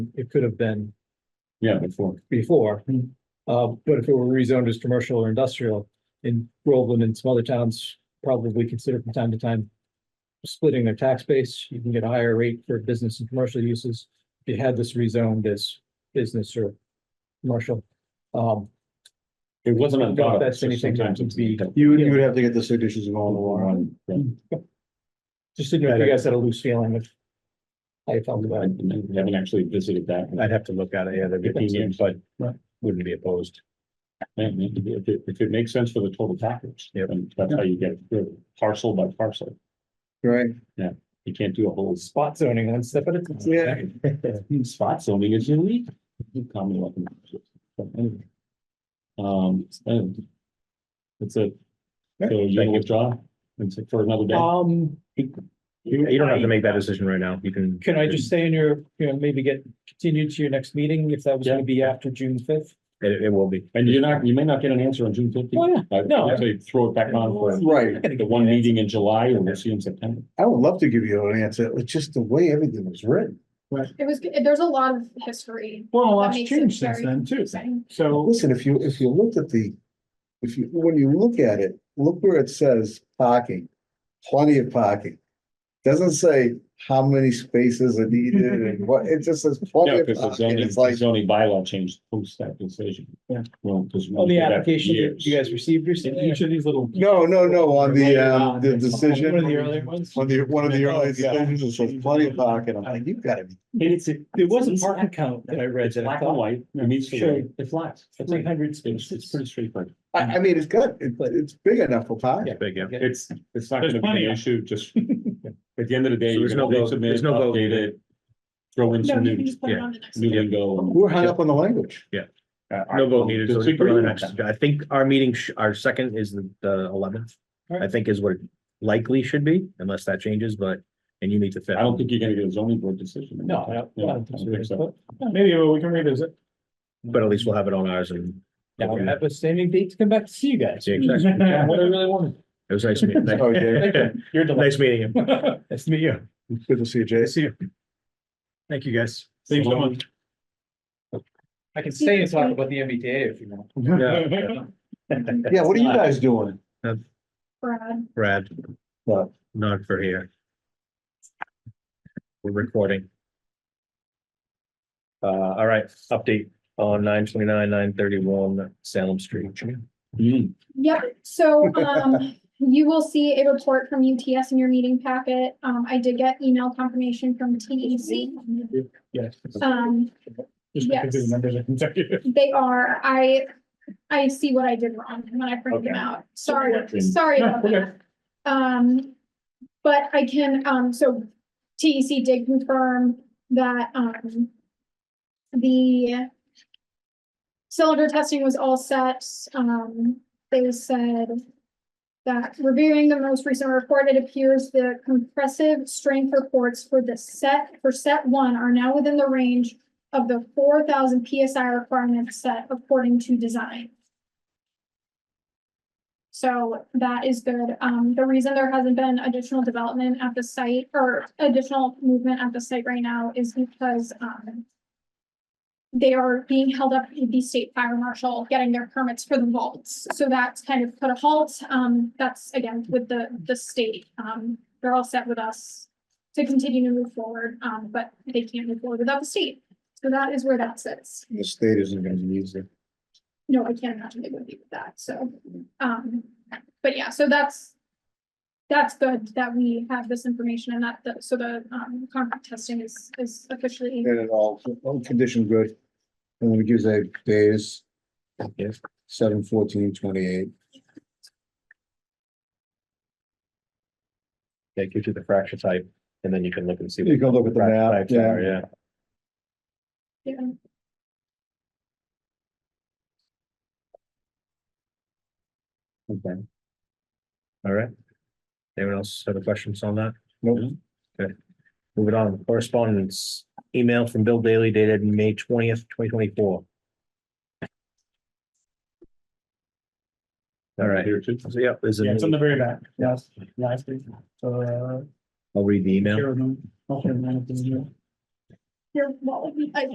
It could have been Yeah, before. before. Uh, but if it were rezoned as commercial or industrial in Groveland and some other towns, probably consider from time to time splitting their tax base, you can get a higher rate for business and commercial uses. If you had this rezoned as business or commercial, um, It wasn't Don't on top. that's anything that would be- You would, you would have to get the signatures of all the law. just didn't know if you guys had a loose feeling of how you felt about it. Haven't actually visited that. I'd have to look at it, yeah, they're Fifteen years. good, but Right. wouldn't be opposed. And If it, if it makes sense for the total package. Yep. then That's how you get it, parcel by parcel. Right. You can't do a whole s- Spot zoning one step at a time. Yeah. spot zoning is unique. Commonwealth. But anyway. Um, and It's a. So you Thank you. withdraw and sit for another day. Uh, Um. You, you don't have to make that decision right now, you can. Can I just stay in your, you know, maybe get continued to your next meeting if that was gonna be after June fifth? It, it will be. And you're not, you may not get an answer on June fifteenth. Oh, yeah. No. So Uh, you throw it back on for Right. the one meeting in July and we'll see you in September. I would love to give you an answer. It's just the way everything was written. It was, there's a lot of history. Well, a That lot's makes it changed since very then too. confusing. So, Listen, if you, if you looked at the, if you, when you look at it, look where it says parking, plenty of parking. Doesn't say how many spaces are needed and what, it just says Yeah, plenty of because the parking. zoning, It's the like, zoning bylaw changed post that decision. Yeah. Well, because. On the application that you guys received in recently? each of these little. no, no, no, on the, Later um, on, the it's- decision. One of uh, the earlier ones? On the, one of the Yeah. early decisions, it says plenty of parking. I'm like, you've gotta be And it's, it There was a parking count that I read It's that I black and thought white, it meets the Sure. way, it's lots. It's, three hundred it's it's spaces. pretty straightforward. I, I mean, it's good, it, it's big enough for parking. Big, yeah. It's, it's not There's gonna be plenty an of- issue, just at the end of the day, So you're there's no gonna vote- resubmit, there's no vote update needed. it. Throw in No, some you can new, just put it yeah. on the next. new one. lingo. and- We're hung up on the language. Uh, I No vote needed, so we put it on disagree the with next, that. I think our meeting, sh- our second is the- the eleventh. I think is what it likely should be, unless that changes, but, and you meet the fifth. I don't think you're gonna get a zoning board decision. No, I don't- I Yeah, don't think so. so. Maybe well, we can revisit. But at least we'll have it on ours and. Now we have a standing date to come back to see you guys. Yeah, exactly. Yeah, What I really wanted. It was nice meeting, Oh, Thank you. you. You're nice delightful. meeting you. Nice to meet you. Good to see you, Jay. see you. Thank you, guys. Thanks so much. I can stay and talk about the MBTA if you want. Yeah, Yeah, what are you guys doing? Brad, Brad, What? not for here. We're recording. Uh, all right, update on nine twenty-nine, nine thirty-one Salem Street. Mm. Yep, so, um, you will see a report from UTS in your meeting packet. Um, I did get email confirmation from TEC. Yes. Um, Just because the Yes. numbers are consecutive. they are, I, I see what I did wrong when I printed them Okay. out. Sorry, Correction. sorry No, about okay. that. Um, but I can, um, so TEC did confirm that, um, the cylinder testing was all set. Um, they said that reviewing the most recent report, it appears the compressive strength reports for the set, for set one are now within the range of the four thousand PSI requirement set according to design. So that is good. Um, the reason there hasn't been additional development at the site or additional movement at the site right now is because, um, they are being held up with the state fire marshal getting their permits for the vaults. So that's kind of put a halt. Um, that's again with the, the state. Um, they're all set with us to continue to move forward, um, but they can't move forward without the state. So that is where that sits. The state isn't gonna use it. No, I can't imagine they would be with that, so, um, but yeah, so that's. That's good that we have this information and that, the- so the, um, contract testing is, is officially, And it all, all condition good. And it gives a days. Yes. Seven fourteen twenty-eight. Take you to the fracture type, and then you can look and see. You can look at the what map, fracture types are, Yeah. yeah, Okay. All right. Anyone else have any questions on that? Mm-hmm. Nope. Okay. Moving on, correspondence, email from Bill Daly dated May twentieth, twenty twenty-four. All right, Here too. so yeah, there's Yeah, a, it's on the very back. Yes. Last thing. So, uh. I'll read the email. here, no, no, no, no, no. your, what would be, I-